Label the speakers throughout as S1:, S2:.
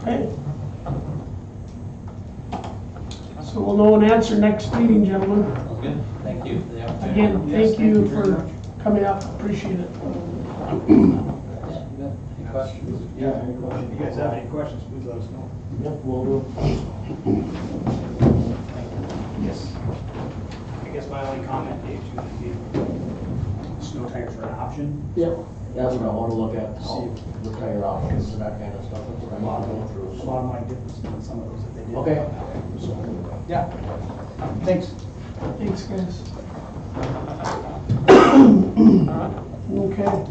S1: Okay. So we'll know an answer next meeting, gentlemen.
S2: Sounds good. Thank you for the opportunity.
S1: Again,
S3: Yes,
S1: thank you
S3: thank you very
S1: for
S3: much.
S1: coming up, appreciate it.
S2: Any questions?
S3: Yeah, if you guys have any questions, please let us know.
S4: Yes. I guess my only comment, Dave, too, would be snow tires are an option.
S5: Yep, that's what I wanna look at, see
S3: Oh.
S5: if the tire options and that kind of stuff, that's what
S4: A
S5: I'm
S4: lot of
S5: going
S4: them, a
S5: through.
S4: lot of mine differs than some of those that they did.
S5: Okay.
S4: So,
S3: Yeah. Thanks.
S1: Thanks, guys. Okay.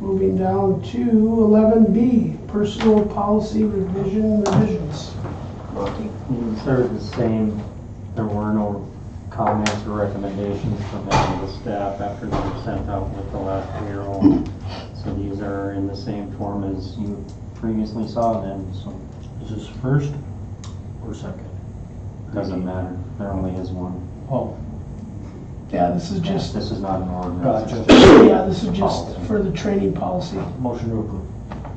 S1: Moving down to eleven B, personal policy revision revisions. Monty?
S6: They're the same, there were no comments or recommendations from any of the staff after they were sent out with the last payroll. So these are in the same form as you previously saw them, so. Is this first or second? Doesn't matter, there only is one.
S4: Oh,
S1: Yeah, this is just,
S6: This is not an ordinance. it's just-
S1: yeah, this is just for the training policy.
S6: Motion to approve.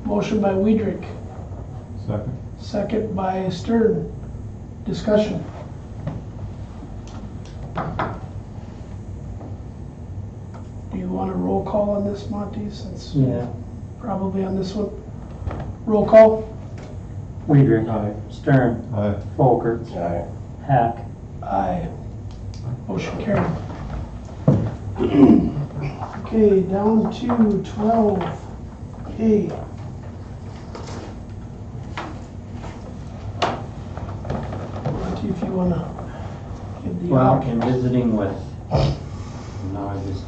S1: Motion by Weidrich,
S7: Second.
S1: second by Stern. Discussion. Do you want a roll call on this, Monty, since
S6: Yeah.
S1: probably on this one? Roll call?
S6: Weider. uh, Stern.
S7: Aye.
S6: Folker.
S5: Alright.
S6: Hack.
S1: Aye. Motion carried. Okay, down to twelve A. Monty, if you wanna give the.
S6: Well, in visiting with, no, I just,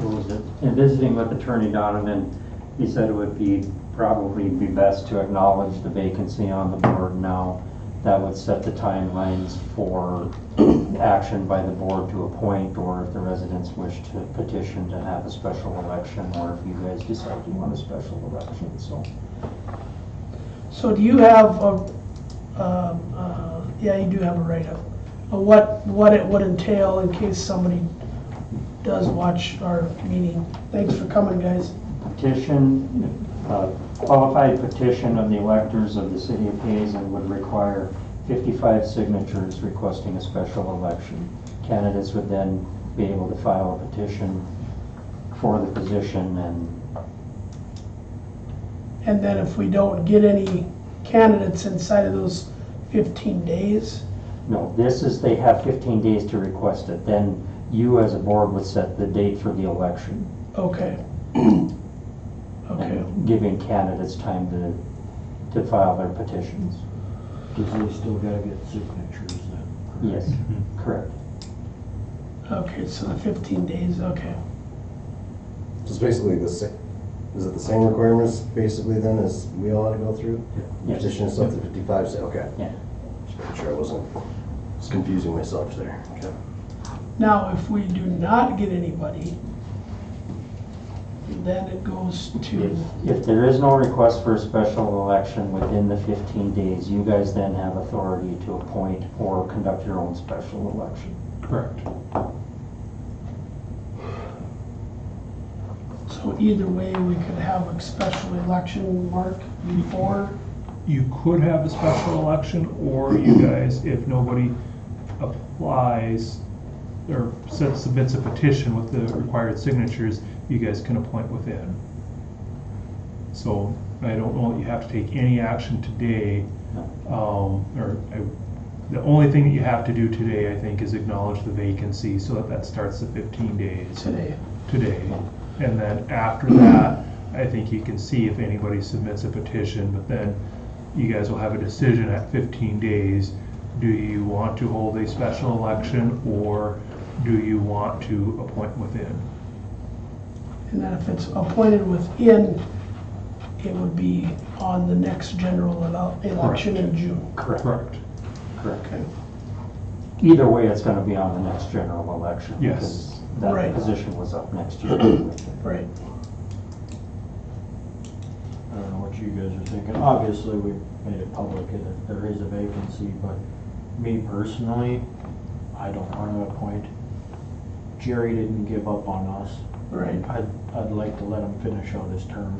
S6: what was it? In visiting with Attorney Donovan, he said it would be, probably be best to acknowledge the vacancy on the board now. That would set the timelines for action by the board to appoint, or if the residents wish to petition to have a special election, or if you guys decide you want a special election, so.
S1: So do you have a, um, uh, yeah, you do have a write-up, of what, what it would entail in case somebody does watch our meeting? Thanks for coming, guys.
S6: petition, uh, qualified petition of the electors of the city of Hazen would require 55 signatures requesting a special election. Candidates would then be able to file a petition for the position and
S1: And then if we don't get any candidates inside of those fifteen days,
S6: No, this is, they have 15 days to request it. Then you as a board would set the date for the election.
S1: okay. Okay,
S6: and Giving candidates time to, to file their petitions.
S5: Cause they still gotta get signatures then. correct?
S6: Yes, correct.
S1: okay, so the fifteen days, okay.
S8: It's basically the same, is it the same requirements basically then as we all had to go through?
S6: Yes.
S8: Petition is up to fifty-five, say, okay.
S6: Yeah.
S8: Just making sure I wasn't, just confusing myself there. Okay.
S1: Now, if we do not get anybody, then it goes to,
S6: If if there is no request for a special election within the 15 days, you guys then have authority to appoint or conduct your own special election.
S7: Correct.
S1: so either way, we could have a special election, Mark, before,
S7: You could have a special election, or you guys, if nobody applies or sub- submits a petition with the required signatures, you guys can appoint within. So I don't know that you have to take any action today. Um, or I, the only thing that you have to do today, I think, is acknowledge the vacancy so that that starts the fifteen days.
S1: today.
S7: today. And then after that, I think you can see if anybody submits a petition, but then you guys will have a decision at fifteen days. Do you want to hold a special election or do you want to appoint within?
S1: And then if it's appointed within, it would be on the next general ele- election in June.
S7: Correct.
S1: Okay.
S6: Either way, it's going to be on the next general election.
S7: Yes.
S6: because That
S1: Right.
S6: position was up next year. anyway.
S1: Right.
S4: I don't know what you guys are thinking. Obviously, we made it public that there is a vacancy, but me personally, I don't want to appoint. Jerry didn't give up on us.
S1: Right.
S4: I'd, I'd like to let him finish out his term